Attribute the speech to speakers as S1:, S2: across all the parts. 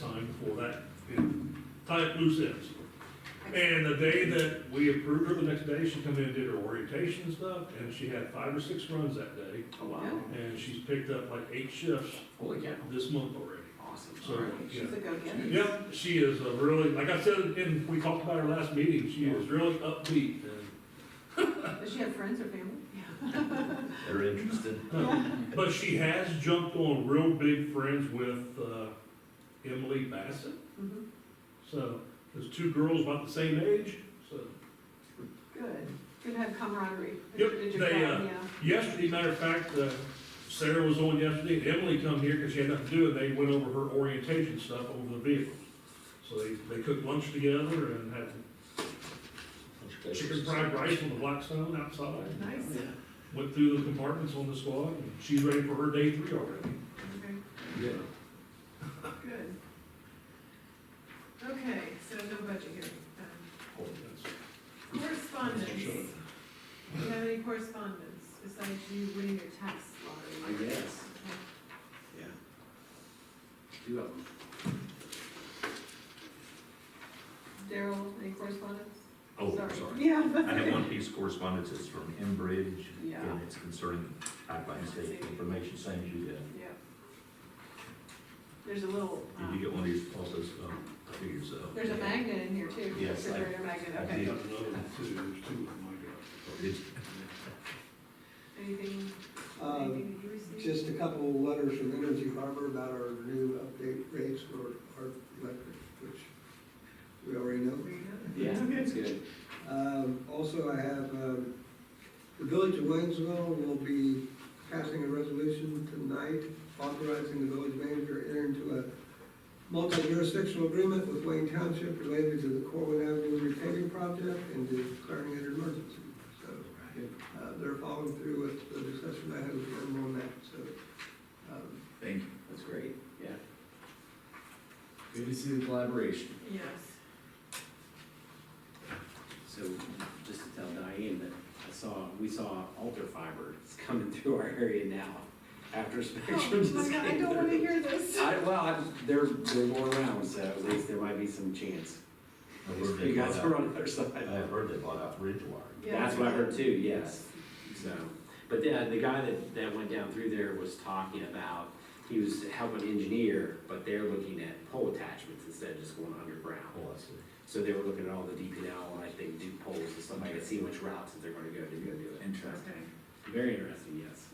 S1: time for that, and tie up loose ends. And the day that we approved her, the next day, she come in and did her orientation and stuff, and she had five or six runs that day,
S2: Oh, wow.
S1: and she's picked up like eight shifts
S2: Holy cow.
S1: this month already.
S2: Awesome.
S1: So, yeah.
S3: She's a go-getter.
S1: Yep, she is a really, like I said, and we talked about her last meeting, she is really upbeat and
S3: Does she have friends or family?
S4: They're interested.
S1: But she has jumped on real big friends with uh, Emily Bassett.
S3: Mhm.
S1: So there's two girls about the same age. So
S3: Good. Good to have camaraderie.
S1: Yep,
S3: Did you
S1: they,
S3: call?
S1: uh,
S3: Yeah.
S1: yesterday, matter of fact, uh, Sarah was on yesterday. and Emily come here because she had nothing to do, and they went over her orientation stuff over the vehicles. So they, they cooked lunch together and had chicken fried rice on the Blackstone outside.
S3: Nice.
S1: Went through the compartments on the squad, and she's ready for her day three already.
S3: Okay,
S4: Yeah.
S3: good. Okay, so no budget here. Um,
S1: Oh, that's-
S3: Correspondence.
S1: Sure.
S3: Do you have any correspondence besides you winning your tax
S2: I
S3: lottery?
S2: guess,
S3: Okay.
S2: yeah. Two of them.
S3: Daryl, any correspondence?
S4: Oh, sorry.
S3: Yeah.
S4: I have one piece of correspondence, it's from Enbridge,
S3: Yeah.
S4: and it's concerning pipeline safety information, same as you did.
S3: Yeah. There's a little,
S4: Did you
S3: um,
S4: get one of these also, um, I figured so.
S3: there's a magnet in here too.
S4: Yes, I-
S3: Refrigerator magnet,
S4: I
S3: okay.
S4: did.
S1: Got another one too. There's two of them
S4: Did-
S3: Anything,
S5: Um,
S3: anything that you received?
S5: Just a couple of letters from Energy Harbor about our new update rates for our electric, which we already know.
S3: There you go.
S2: Yeah, that's good.
S5: Um, Also, I have, um, the Village of Waynesville will be passing a resolution tonight authorizing the village manager to enter into a multi-jurisdictional agreement with Wayne Township related to the Corwin Avenue repaving project and declaring it an emergency. So uh, they're following through with the discussion I had with them on that, so. um,
S2: Thank you. That's great, yeah. Good to see the collaboration.
S3: Yes.
S2: So just to tell Diane that I saw, we saw alter fiber is coming through our area now after
S3: Oh,
S2: Spectrum
S3: my
S2: just
S3: God, I
S2: came
S3: don't wanna
S2: through.
S3: hear this.
S2: I, well, I, they're, they're going around, so at least there might be some chance.
S4: I heard they
S2: You guys
S4: bought
S2: were
S4: out-
S2: on the other side.
S4: I heard they bought out Ridgewire.
S2: That's what I heard too, yes. So, but the, uh, the guy that, that went down through there was talking about, he was helping engineer, but they're looking at pole attachments instead of just going underground.
S4: Oh, I see.
S2: So they were looking at all the DPL and like they do polls and stuff like that, see which routes that they're gonna go to go do it. Interesting.
S3: Okay,
S2: Very interesting, yes.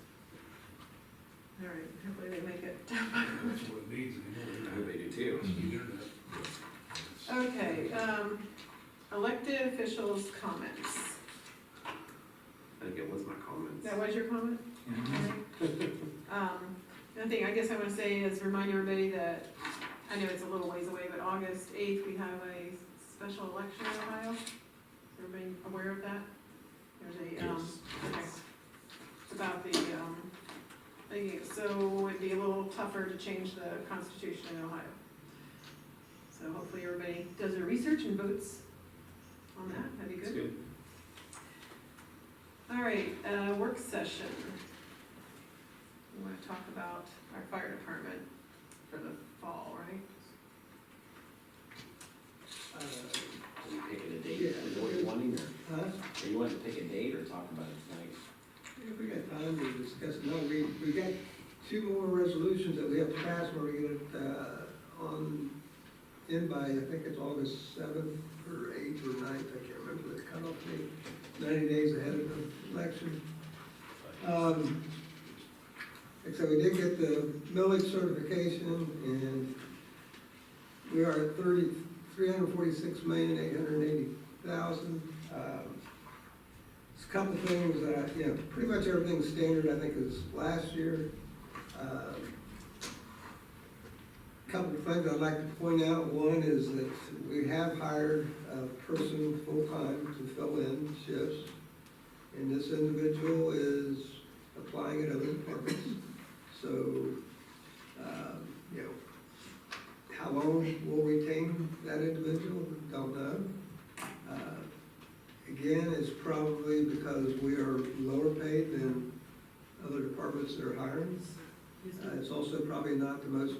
S3: all right, hopefully they make it.
S1: I got. That's what it needs anymore.
S2: they do too.
S3: Okay, um, elected officials' comments.
S2: I think it was my comments.
S3: That was your comment? Okay. Um, Another thing I guess I want to say is remind everybody that, I know it's a little ways away, but August eighth, we have a special election in Ohio. Is everybody aware of that? There's a, um,
S4: Yes.
S3: okay. It's about the, um, thingy. so it'd be a little tougher to change the constitution in Ohio. So hopefully everybody does their research and votes on that, that'd be
S2: It's
S3: good.
S2: good.
S3: All right, uh, work session. We want to talk about our fire department for the fall, right?
S5: uh,
S2: Are you picking a date?
S5: Yeah.
S2: Is that what you're wanting or,
S5: Huh?
S2: are you wanting to pick a date or talk about it tonight?
S5: If we got time to discuss, it. no, we, we got two more resolutions that we have to pass when we get it, uh, on, in by, I think it's August seventh or eighth or ninth, I can't remember the cutoff date, ninety days ahead of the election. Um, except we did get the millage certification and we are at thirty, three hundred forty-six million, eight hundred eighty thousand. Um, There's a couple things that, I- you know, pretty much everything's standard, I think, as last year. Um, Couple of things I'd like to point out, one is that we have hired a person full-time to fill in shifts. And this individual is applying at other departments. So, um, you know, how long we'll retain that individual, don't know. Uh, Again, it's probably because we are lower paid than other departments that are hiring. Uh, It's also probably not the most